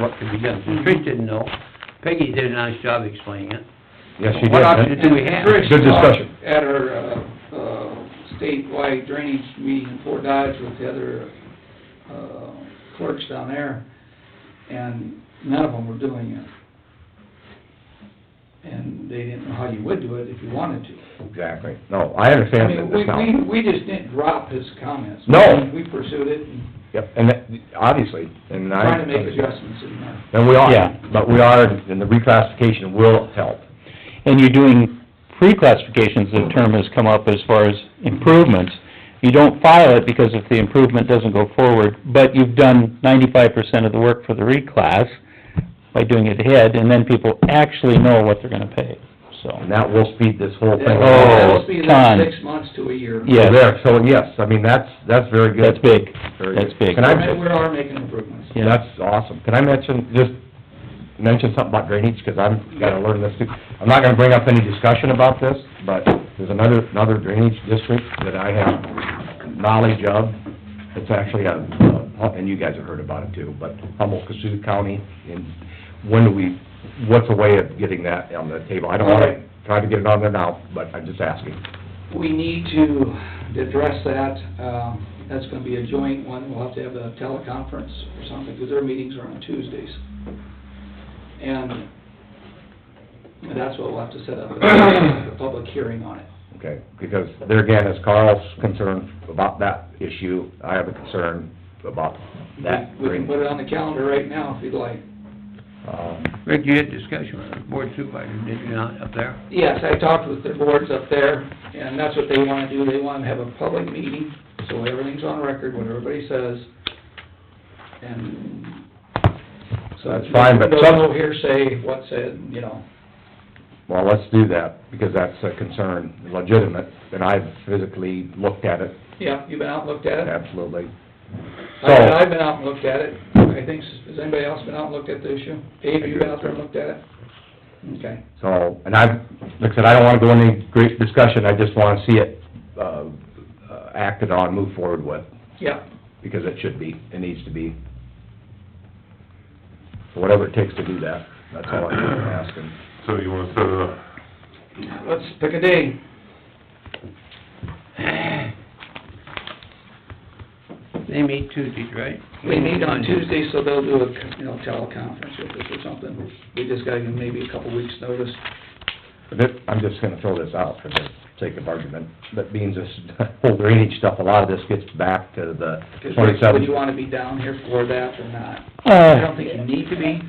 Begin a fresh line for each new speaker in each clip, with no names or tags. what could be done. So
Mm-hmm.
Trish didn't know, Peggy did a nice job explaining it.
Yes, you did.
What options do we have?
Good discussion.
At our, uh, uh, statewide drainage meeting in Fort Dodge with the other, uh, clerks down there, and none of them were doing it. And they didn't know how you would do it if you wanted to.
Exactly. No, I
I
understand
mean,
that
we,
this
we,
now.
we just didn't drop his comments.
No.
We pursued it and
Yep, and that, obviously, and I.
tried to make adjustments in there.
And we are,
Yeah.
but we are, and the reclassification will help.
and you're doing pre-classifications, the term has come up as far as improvements. You don't file it because if the improvement doesn't go forward, but you've done ninety-five percent of the work for the reclass by doing it ahead, and then people actually know what they're gonna pay, so.
And that will speed this whole thing
Oh,
along.
That'll be like
ton.
six months to a year.
Yeah. yes.
There, so yes, I mean, that's, that's very good.
That's big,
Very
that's
good.
big.
Can
We're
I
ma-
just-
we are making improvements.
Yeah.
That's awesome. Can I mention, just mention something about drainage, because I'm, gotta learn this too. I'm not gonna bring up any discussion about this, but there's another, another drainage district that I have knowledge of. It's actually a, and you guys have heard about it too, but Humboldt, Cassuth County, and when do we, what's a way of getting that on the table? I don't wanna try to get it on there now, but I'm just asking.
We need to address that, um, that's gonna be a joint one, we'll have to have a teleconference or something, because their meetings are on Tuesdays. And that's what we'll have to set up, a public hearing on it.
Okay, because there again, as Carl's concerned about that issue, I have a concern about that
We can
drainage.
put it on the calendar right now if you'd like.
Um,
Rick, you had discussion with the board supervisor, did you not, up there?
Yes, I talked with their boards up there, and that's what they wanna do, they wanna have a public meeting, so everything's on record, what everybody says, and... so
That's fine, but some-
No hearsay, what said, you know,
Well, let's do that, because that's a concern, legitimate, and I've physically looked at it,
yeah, you've been out and looked at it?
absolutely.
I've,
So-
I've been out and looked at it, I think, has anybody else been out and looked at the issue? Dave, have you been out there and looked at it? Okay,
So, and I've, like I said, I don't wanna go into any great discussion, I just wanna see it, uh, uh, acted on, moved forward with,
yeah,
because it should be, it needs to be. So Whatever it takes to do that, that's all I'm asking.
So you wanna set it up?
let's pick a day.
They meet Tuesdays, right?
They meet on Tuesday, so they'll do a, you know, teleconference with us or something. We just gotta give them maybe a couple weeks' notice.
But it- I'm just gonna throw this out for the sake of argument, that means this whole drainage stuff, a lot of this gets back to the
'Cause
twenty-seventh.
Would you wanna be down here for that or not? I
Uh,
don't think you need to be.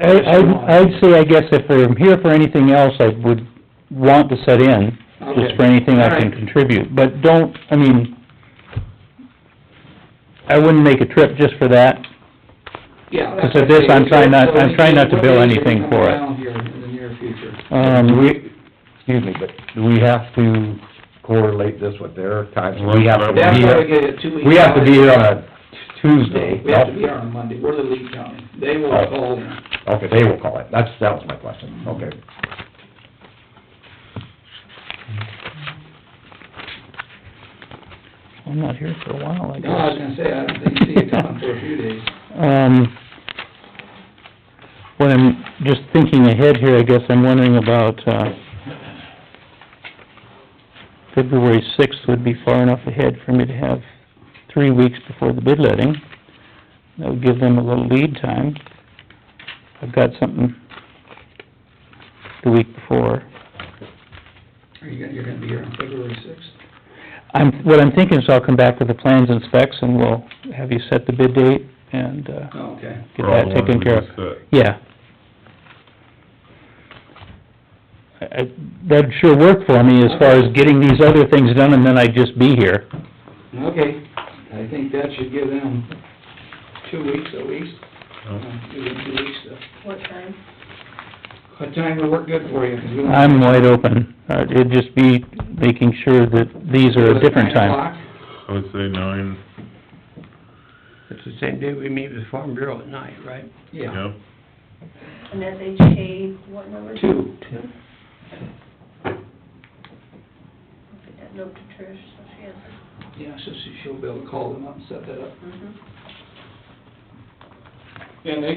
I, I'd, I'd say, I guess if I'm here for anything else, I would want to set in, just
Okay.
for anything I can
Alright.
contribute, but don't, I mean, I wouldn't make a trip just for that,
Yeah.
Because of this, I'm trying not- I'm trying not to bill
We'll be
anything
coming
for it.
Down here in the near future.
Do
um,
we, excuse me, but do we have to correlate this with their times? We have to
That's
be
why we
here,
get a two-week.
we have to be here on a Tuesday.
notice. We have to be here on Monday. We're the lead county. They will
Oh.
call in.
Okay, they will call it, that's, that was my question, okay.
I'm not here for a while, I
No, I was
guess.
gonna say, I don't think, see it coming for a few days.
Um, what I'm, just thinking ahead here, I guess I'm wondering about, uh, February sixth would be far enough ahead for me to have three weeks before the bid letting. That would give them a little lead time. I've got something the week before.
Are you, gonna- you're gonna be here on February sixth?
I'm, what I'm thinking is I'll come back with the plans and specs and we'll have you set the bid date and, uh,
Oh, okay.
get that taken care of. Yeah. I, I- that'd sure work for me as far as getting these other things done and then I'd just be here.
Okay, I think that should give them two weeks at least. Uh, Give them two weeks. to-
What time?
What time will work good for you? 'Cause we don't-
I'm wide open. Uh, it'd just be making sure that these are a different
Nine
time.
o'clock?
I would say nine,
It's the same day we meet with the Farm Bureau at night, right?
Yeah,
yeah.
And that's HA, what number?
Two.
Two? I'll Get that note to Trish, so she has it.
yeah, so she- she'll be able to call them up and set that up.
Mm-hmm.
And they